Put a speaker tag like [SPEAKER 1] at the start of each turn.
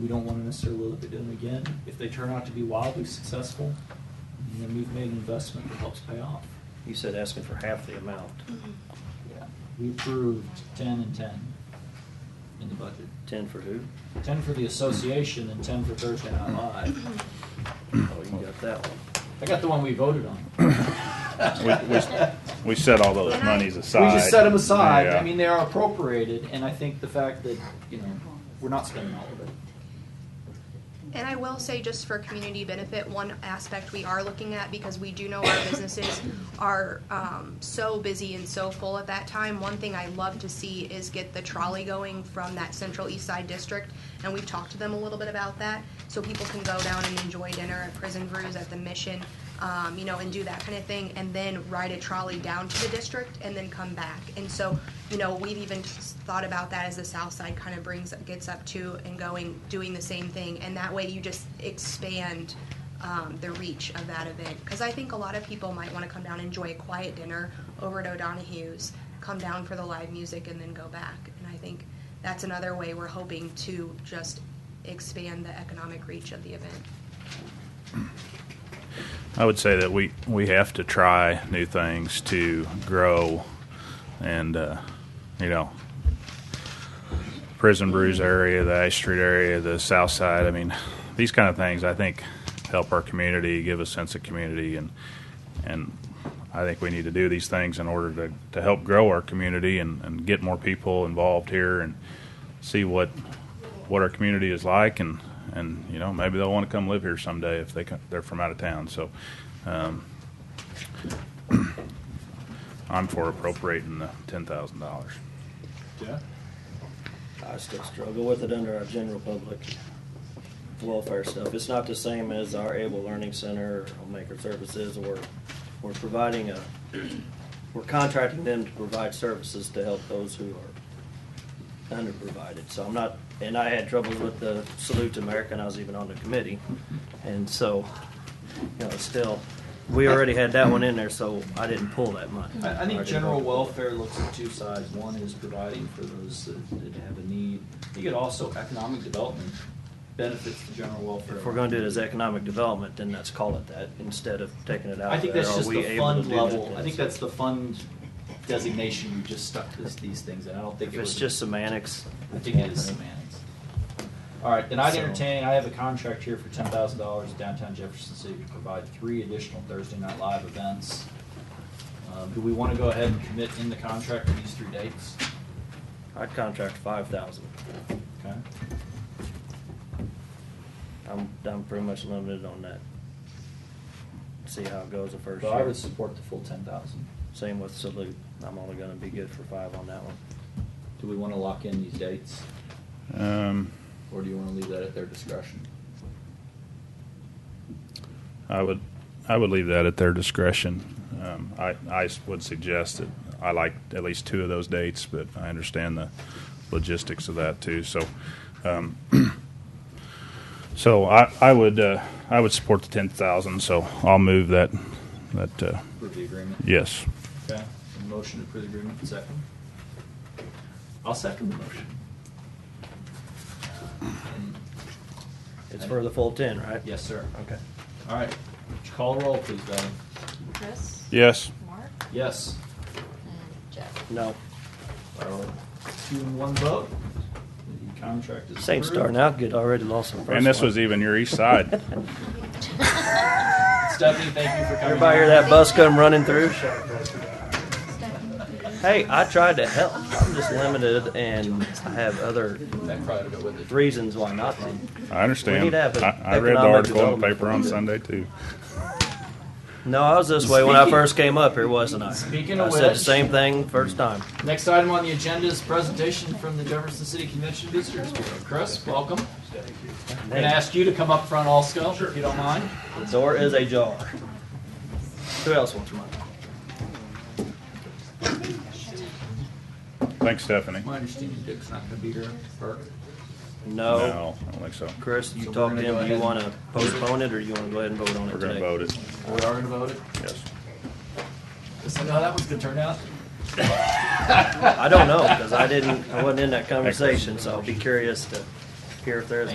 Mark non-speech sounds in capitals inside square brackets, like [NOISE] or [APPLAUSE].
[SPEAKER 1] we don't want to necessarily look at them again. If they turn out to be wildly successful, then we've made an investment that helps pay off.
[SPEAKER 2] You said asking for half the amount,
[SPEAKER 1] Yeah. We approved ten and ten in the budget.
[SPEAKER 2] ten for who?
[SPEAKER 1] Ten for the association and ten for Thursday Night Live.
[SPEAKER 2] Oh, you got that one.
[SPEAKER 1] I got the one we voted on.
[SPEAKER 3] [LAUGHS] We,
[SPEAKER 1] [LAUGHS]
[SPEAKER 3] we, we set all those monies aside.
[SPEAKER 1] We just set them aside.
[SPEAKER 3] Yeah.
[SPEAKER 1] I mean, they are appropriated, and I think the fact that, you know, we're not spending all of it.
[SPEAKER 4] And I will say, just for community benefit, one aspect we are looking at, because we do know our businesses are um, so busy and so full at that time, one thing I love to see is get the trolley going from that central east side district, and we've talked to them a little bit about that, so people can go down and enjoy dinner at Prison Brews, at the Mission, um, you know, and do that kind of thing, and then ride a trolley down to the district and then come back. And so, you know, we've even s- thought about that as the south side kind of brings, gets up to and going, doing the same thing. And that way you just expand um, the reach of that event. Because I think a lot of people might want to come down, enjoy a quiet dinner over at O'Donohue's, come down for the live music and then go back. And I think that's another way we're hoping to just expand the economic reach of the event.
[SPEAKER 3] I would say that we, we have to try new things to grow and, uh, you know, Prison Brews area, the Ash Street area, the South Side. I mean, these kind of things I think help our community, give a sense of community, and and I think we need to do these things in order to, to help grow our community and, and get more people involved here and see what what our community is like and and you know maybe they'll want to come live here someday if they come, they're from out of town. So um, [CLEARS THROAT] I'm for appropriating the ten thousand dollars.
[SPEAKER 1] Yeah.
[SPEAKER 2] I still struggle with it under our general public welfare stuff. It's not the same as our Able Learning Center or Homemaker Services or we're providing a, we're contracting them to provide services to help those who are underprovided. So I'm not, and I had trouble with the Salute to America and I was even on the committee. And so, you know, it's still, we already had that one in there, so I didn't pull that money.
[SPEAKER 1] I, I think
[SPEAKER 2] already
[SPEAKER 1] general
[SPEAKER 2] voted for it.
[SPEAKER 1] welfare looks at two sides. One is providing for those that, that have a need. I think it also economic development benefits the general welfare.
[SPEAKER 2] If we're gonna do it as economic development, then let's call it that, instead of taking it out
[SPEAKER 1] I think
[SPEAKER 2] there.
[SPEAKER 1] that's
[SPEAKER 2] Are
[SPEAKER 1] just
[SPEAKER 2] we
[SPEAKER 1] the
[SPEAKER 2] able to
[SPEAKER 1] fund
[SPEAKER 2] do that
[SPEAKER 1] level. I
[SPEAKER 2] as-
[SPEAKER 1] think that's the fund designation you just stuck this, these things in. I don't think
[SPEAKER 2] If
[SPEAKER 1] it was.
[SPEAKER 2] it's just semantics.
[SPEAKER 1] I think it is semantics. All right, then I'd
[SPEAKER 2] So-
[SPEAKER 1] entertain, I have a contract here for ten thousand dollars downtown Jefferson City to provide three additional Thursday night live events. Um, do we wanna go ahead and commit in the contract to these three dates?
[SPEAKER 2] I'd contract five thousand.
[SPEAKER 1] Okay.
[SPEAKER 2] I'm, I'm pretty much limited on that. See how it goes the first
[SPEAKER 1] But I
[SPEAKER 2] year.
[SPEAKER 1] would support the full ten thousand.
[SPEAKER 2] Same with salute. I'm only gonna be good for five on that one.
[SPEAKER 1] Do we wanna lock in these dates,
[SPEAKER 3] Um,
[SPEAKER 1] or do you wanna leave that at their discretion?
[SPEAKER 3] I would, I would leave that at their discretion. Um, I, I s- would suggest that I like at least two of those dates, but I understand the logistics of that too. So, um, [CLEARS THROAT] so I, I would, uh, I would support the ten thousand. So I'll move that, that, uh,
[SPEAKER 1] Approve the agreement?
[SPEAKER 3] yes.
[SPEAKER 1] Okay, a motion to approve the agreement, second. I'll second the motion. And-
[SPEAKER 2] It's for the full ten, right?
[SPEAKER 1] Yes, sir.
[SPEAKER 2] Okay.
[SPEAKER 1] All right, would you call a roll, please, Doug?
[SPEAKER 5] Chris?
[SPEAKER 3] Yes.
[SPEAKER 5] Mark?
[SPEAKER 1] Yes.
[SPEAKER 5] And Jeff?
[SPEAKER 2] No,
[SPEAKER 1] Well, Two and one vote. The contract is
[SPEAKER 2] same
[SPEAKER 1] approved.
[SPEAKER 2] starting out good, already lost some first
[SPEAKER 3] And this
[SPEAKER 2] one.
[SPEAKER 3] was even your east side.
[SPEAKER 1] Stephanie, thank you for coming.
[SPEAKER 2] Everybody hear
[SPEAKER 1] down.
[SPEAKER 2] that bus come running through? Hey, I tried to help. I'm just limited and I have other
[SPEAKER 1] That probably would've went with it.
[SPEAKER 2] reasons why not to.
[SPEAKER 3] I understand.
[SPEAKER 2] We need to have an
[SPEAKER 3] I, I read the
[SPEAKER 2] economic
[SPEAKER 3] article in the
[SPEAKER 2] development
[SPEAKER 3] paper on
[SPEAKER 2] fund.
[SPEAKER 3] Sunday too.
[SPEAKER 2] No, I was this way when I
[SPEAKER 1] Speaking-
[SPEAKER 2] first came up here, wasn't I?
[SPEAKER 1] Speaking
[SPEAKER 2] I
[SPEAKER 1] of
[SPEAKER 2] said the
[SPEAKER 1] which-
[SPEAKER 2] same thing first time.
[SPEAKER 1] Next item on the agenda is presentation from the Jefferson City Convention Visitors Bureau. Chris, welcome. I'm gonna ask you to come up front also, if you don't mind.
[SPEAKER 2] The door is ajar. Who else wants mine?
[SPEAKER 3] Thanks, Stephanie.
[SPEAKER 1] My understanding, Dick's not gonna be here for
[SPEAKER 2] No.
[SPEAKER 3] I don't think so.
[SPEAKER 2] Chris, you
[SPEAKER 1] So we're
[SPEAKER 2] talked
[SPEAKER 1] gonna
[SPEAKER 2] to
[SPEAKER 1] go
[SPEAKER 2] him. Do
[SPEAKER 1] ahead
[SPEAKER 2] you want to
[SPEAKER 1] and-
[SPEAKER 2] postpone it or you want to go ahead and vote on it
[SPEAKER 3] We're gonna
[SPEAKER 2] today?
[SPEAKER 3] vote it.
[SPEAKER 1] We are gonna vote it.
[SPEAKER 3] Yes.
[SPEAKER 1] Does that know how that one's gonna turn out?
[SPEAKER 2] I don't know because I didn't, I wasn't in that conversation, so I'll be curious to hear if there's